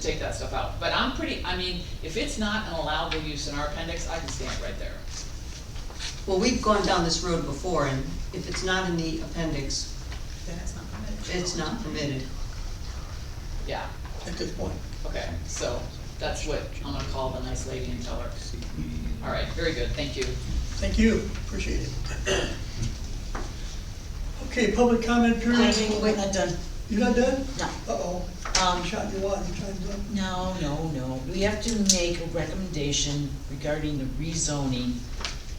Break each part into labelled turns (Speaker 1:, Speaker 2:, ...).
Speaker 1: take that stuff out, but I'm pretty, I mean, if it's not an allowable use in our appendix, I can stand right there.
Speaker 2: Well, we've gone down this road before, and if it's not in the appendix,
Speaker 3: Then it's not permitted.
Speaker 2: it's not permitted.
Speaker 1: Yeah,
Speaker 4: at this point.
Speaker 1: okay, so that's what, I'm gonna call the nice lady and tell her. All right, very good, thank you.
Speaker 4: Thank you, appreciate it. Okay, public comment
Speaker 3: I
Speaker 4: period.
Speaker 3: mean, we're not done,
Speaker 4: You not done?
Speaker 3: no.
Speaker 4: Uh-oh,
Speaker 3: Um,
Speaker 4: I'm shot your watch, time's up.
Speaker 3: No, no, no, we have to make a recommendation regarding the rezoning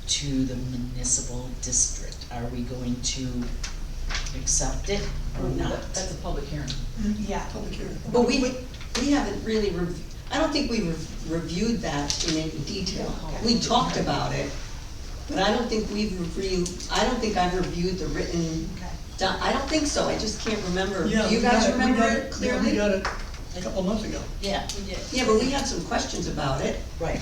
Speaker 3: to the municipal district. Are we going to accept it or not?
Speaker 1: That's a public hearing.
Speaker 3: Yeah.
Speaker 4: Public hearing.
Speaker 2: But we, we haven't really, rev- I don't think we rev- reviewed that in any detail. We talked about it, but I don't think we've reviewed, I don't think I've reviewed the written,
Speaker 3: Okay.
Speaker 2: do- I don't think so, I just can't remember. Do
Speaker 4: Yeah,
Speaker 2: you
Speaker 4: we got
Speaker 2: guys
Speaker 4: it, we
Speaker 2: remember
Speaker 4: got
Speaker 2: it
Speaker 4: Yeah,
Speaker 2: clearly?
Speaker 4: We got it a couple months ago.
Speaker 3: Yeah, we did.
Speaker 2: Yeah, but we had some questions about it.
Speaker 3: Right.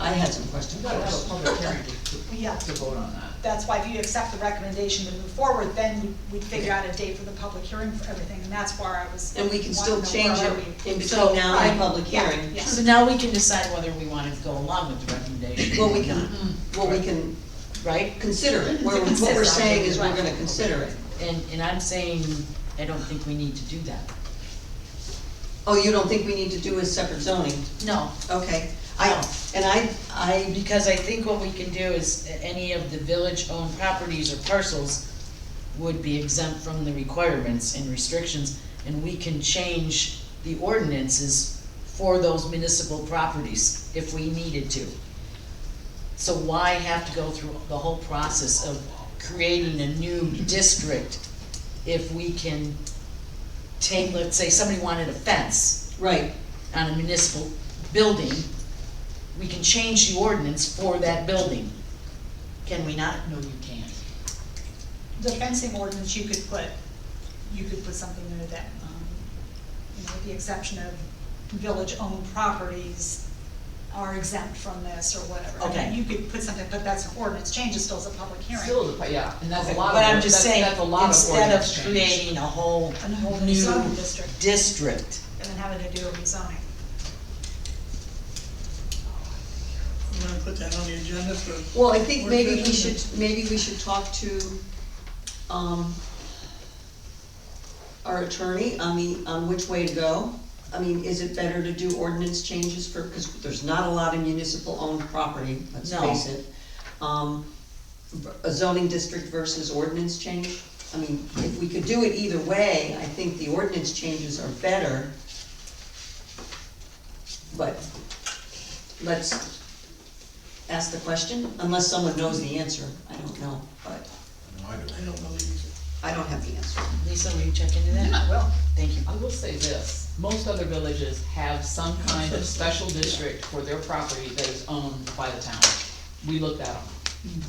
Speaker 2: I had some questions.
Speaker 1: You gotta have a Oh, public hearing to,
Speaker 5: Yeah,
Speaker 1: to vote on that.
Speaker 5: that's why if you accept the recommendation to move forward, then we'd figure out a date for the public hearing for everything, and that's where I was.
Speaker 2: And we can still
Speaker 5: wanting to know
Speaker 2: change
Speaker 5: where
Speaker 2: it
Speaker 5: are we.
Speaker 2: in
Speaker 3: So,
Speaker 2: between now and the public hearing.
Speaker 5: Yeah.
Speaker 3: So now we can decide whether we wanna go along with the recommendation
Speaker 2: Well,
Speaker 3: or
Speaker 2: we can,
Speaker 3: not,
Speaker 2: well, we can
Speaker 3: right?
Speaker 2: consider it, We're- what we're
Speaker 5: consider.
Speaker 2: saying is we're gonna
Speaker 5: Right.
Speaker 2: consider it.
Speaker 3: And, and I'm saying, I don't think we need to do that.
Speaker 2: Oh, you don't think we need to do a separate zoning?
Speaker 3: No,
Speaker 2: Okay, I,
Speaker 3: No.
Speaker 2: and I, I,
Speaker 3: Because I think what we can do is, a- any of the village-owned properties or parcels would be exempt from the requirements and restrictions, and we can change the ordinances for those municipal properties if we needed to. So why have to go through the whole process of creating a new district if we can take, let's say, somebody wanted a fence,
Speaker 2: right,
Speaker 3: on a municipal building, we can change the ordinance for that building. Can we not? No, you can't.
Speaker 5: The fencing ordinance, you could put, you could put something there that, um, you know, with the exception of village-owned properties are exempt from this or whatever. I mean,
Speaker 3: Okay.
Speaker 5: You could put something, but that's an ordinance change, it still is a public hearing.
Speaker 1: Still, the pu- yeah, and that's a lot of,
Speaker 3: But I'm just
Speaker 1: that's,
Speaker 3: saying,
Speaker 1: that's a lot of
Speaker 3: instead
Speaker 1: ordinance
Speaker 3: of
Speaker 1: change.
Speaker 3: creating a whole
Speaker 5: A whole new zoning
Speaker 3: new
Speaker 5: district,
Speaker 3: district.
Speaker 5: and then having to do a rezoning.
Speaker 4: You wanna put that on the agenda for?
Speaker 2: well, I think
Speaker 4: Or
Speaker 2: maybe we
Speaker 4: discussion.
Speaker 2: should, maybe we should talk to, um, our attorney on the, on which way to go. I mean, is it better to do ordinance changes for, because there's not a lot of municipal owned property, let's
Speaker 3: No.
Speaker 2: face it. Um, a zoning district versus ordinance change? I mean, if we could do it either way, I think the ordinance changes are better. But let's ask the question, unless someone knows the answer, I don't know, but
Speaker 4: I don't know these.
Speaker 2: I don't have the answer.
Speaker 3: Lisa, will you check into that?
Speaker 1: Yeah, well,
Speaker 3: Thank you.
Speaker 1: I will say this, most other villages have some kind of special district for their property that is owned by the town. We looked at them.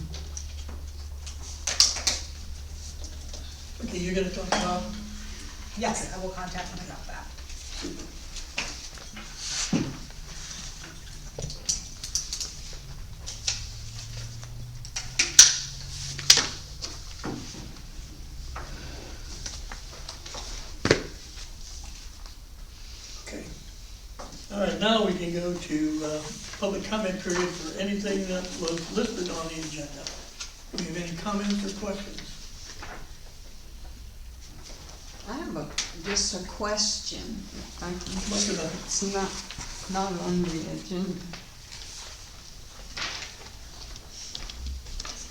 Speaker 4: Okay, you're gonna talk about,
Speaker 5: Yes, I will contact them about that.
Speaker 4: okay. All right, now we can go to, uh, public comment period for anything that was listed on the agenda. Do you have any comments or questions?
Speaker 6: I have a, just a question. if I can-
Speaker 4: Look at that.
Speaker 6: It's not, not on the agenda.
Speaker 3: Doesn't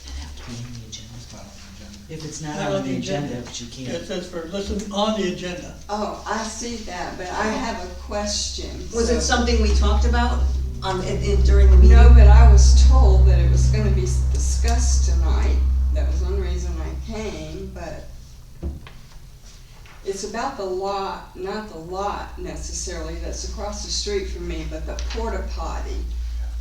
Speaker 3: that have to be on the agenda?
Speaker 7: Not on the agenda.
Speaker 3: If it's not on the agenda, but you
Speaker 4: It
Speaker 3: can't.
Speaker 4: says for, listen, on the agenda.
Speaker 6: Oh, I see that, but I have a question.
Speaker 2: Was it
Speaker 6: so-
Speaker 2: something we talked about on, in- in- during the meeting?
Speaker 6: No, but I was told that it was gonna be s- discussed tonight. That was one reason I came, but it's about the lot, not the lot necessarily that's across the street from me, but the porta potty.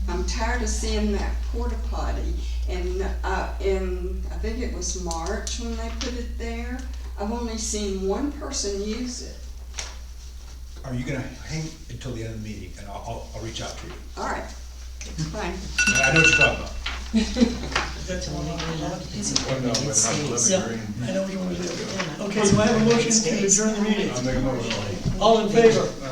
Speaker 6: I'm tired of seeing that porta potty and, uh, in, I think it was March when they put it there. I've only seen one person use it.
Speaker 7: Are you gonna hang until the end of the meeting, and I'll, I'll, I'll reach out to you?
Speaker 6: All right, fine.
Speaker 7: And I know what you're talking about.
Speaker 4: That's the one on the agenda.
Speaker 7: Well, no, but not
Speaker 3: States.
Speaker 4: Yeah, I know which one was it. Okay, do I have a motion to adjourn the meeting?
Speaker 7: I'm making a motion.
Speaker 4: All in favor?